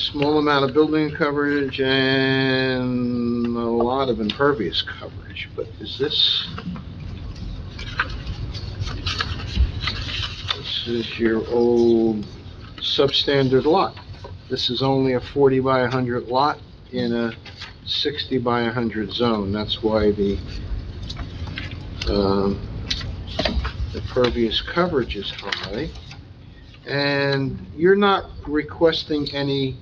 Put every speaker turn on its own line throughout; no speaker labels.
small amount of building coverage and a lot of impervious coverage, but is this? This is your old substandard lot. This is only a forty by hundred lot in a sixty by hundred zone. That's why the, um, impervious coverage is high. And you're not requesting any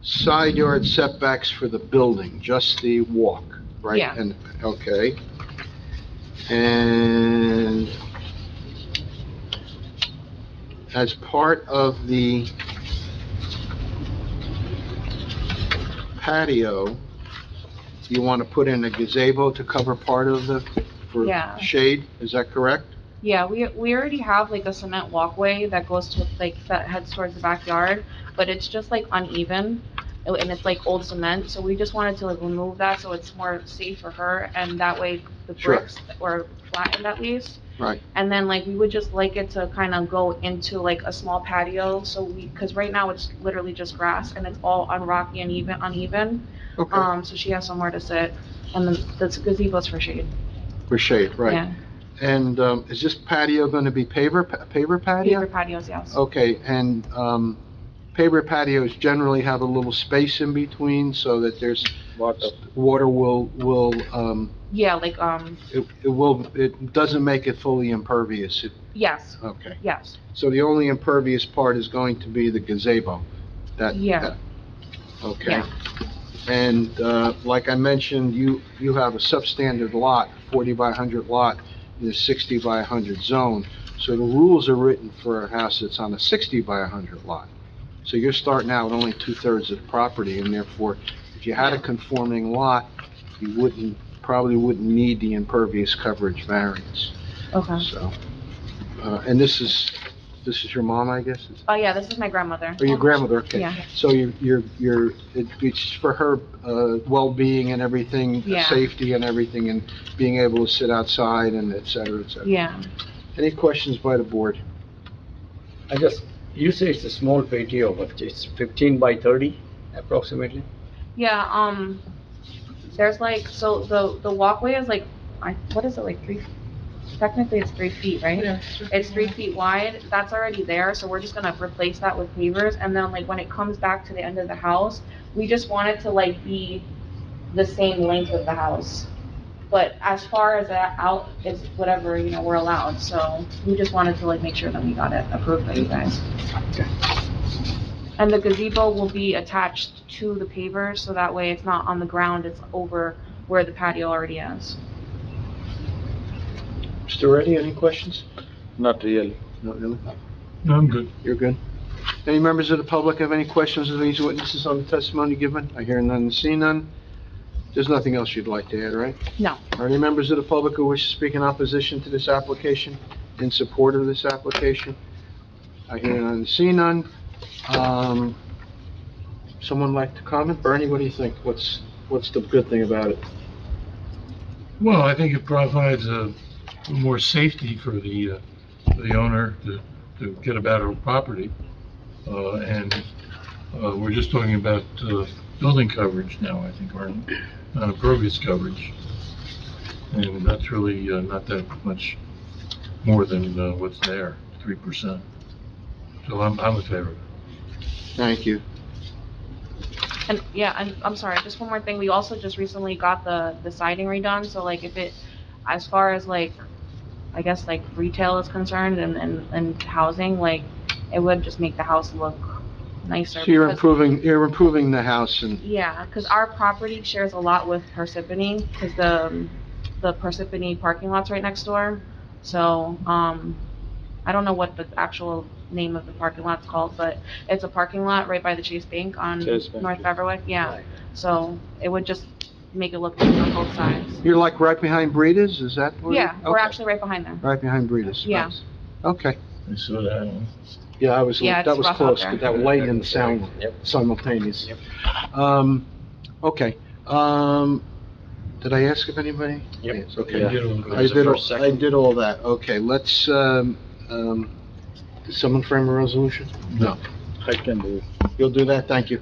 side yard setbacks for the building, just the walk, right?
Yeah.
And, okay. And as part of the patio, you want to put in a gazebo to cover part of the, for
Yeah.
shade, is that correct?
Yeah, we, we already have like a cement walkway that goes to, like, that heads towards the backyard, but it's just like uneven, and and it's like old cement, so we just wanted to like remove that so it's more safe for her, and that way the
Sure.
bricks were flattened at least.
Right.
And then like, we would just like it to kind of go into like a small patio, so we, because right now it's literally just grass, and it's all unrocky and even, uneven,
Okay,
um, so she has somewhere to sit, and then the gazebo's for shade.
for shade, right.
Yeah.
And um, is this patio going to be paver, pa- paver
Paper
patio?
patios, yes.
Okay, and um, paver patios generally have a little space in between so that there's, water will, will, um,
Yeah, like, um,
it it will, it doesn't make it fully impervious. It-
yes,
Okay,
yes,
so the only impervious part is going to be the gazebo? That-
Yeah.
that- Okay.
Yeah.
And uh, like I mentioned, you, you have a substandard lot, 40 by 100 lot, in a 60 by 100 zone. So the rules are written for a house that's on a 60 by 100 lot. So you're starting out with only two-thirds of the property, and therefore, if you had a conforming lot, you wouldn't, probably wouldn't need the impervious coverage variance,
okay.
so. uh, And this is, this is your mom, I guess?
Oh, yeah, this is my grandmother.
Or Oh, your grandmother, okay.
Yeah.
So you're, you're, you're, it- it's for her, uh, well-being and everything,
Yeah.
safety and everything, and being able to sit outside and et cetera, et cetera.
Yeah,
Any questions by the board?
I just, you say it's a small patio, but it's fifteen by thirty approximately?
yeah, um, there's like, so the, the walkway is like, I, what is it, like three? Technically, it's three feet, right? It's three feet wide, that's already there, so we're just gonna replace that with pavers, and then like when it comes back to the end of the house, we just want it to like be the same length of the house. But as far as that out, it's whatever, you know, we're allowed, so we just wanted to like make sure that we got it approved by you guys. And the gazebo will be attached to the pavers, so that way it's not on the ground, it's over where the patio already is.
Mr. Reddy, any questions?
Not really.
No, really?
No, I'm good.
You're good. Any members of the public have any questions of these witnesses on the testimony given? I hear none and see none. There's nothing else you'd like to add, right?
No.
Are any members of the public who wish to speak in opposition to this application, in support of this application? I hear none, see none. Um, someone like to comment? Bernie, what do you think? What's, what's the good thing about it?
Well, I think it provides a more safety for the, uh, for the owner to, to get about her property. Uh, and, uh, we're just talking about, uh, building coverage now, I think, or not impervious coverage. And that's really, uh, not that much more than, uh, what's there, three percent. So I'm, I'm in favor.
Thank you.
And, yeah, and I'm sorry, just one more thing, we also just recently got the, the siding redone, so like if it, as far as like, I guess like retail is concerned and, and, and housing, like, it would just make the house look nicer.
So you're
because-
improving, you're improving the house and,
Yeah, because our property shares a lot with Parsippany, because the, um, the Parsippany parking lot's right next door. So, um, I don't know what the actual name of the parking lot's called, but it's a parking lot right by the Chase Bank on
Chase Bank,
North
yeah.
Beverwick, yeah. So it would just make it look nice on both sides.
you're like right behind Breeders, is that where?
Yeah, we're
Okay.
actually right behind them.
Right behind Breeders.
Yeah.
Okay.
I saw that one.
Yeah, I was,
Yeah,
that
it's
was
rough out
close,
there.
but that light and the sound were
Yep.
simultaneous.
Yep.
Um, okay, um, did I ask if anybody?
Yep.
Yes,
Yeah,
Okay.
you know,
I did,
first,
all- I
second.
did all that, okay, let's, um, um, did someone frame a resolution?
No.
I can do it.
You'll do that, thank you.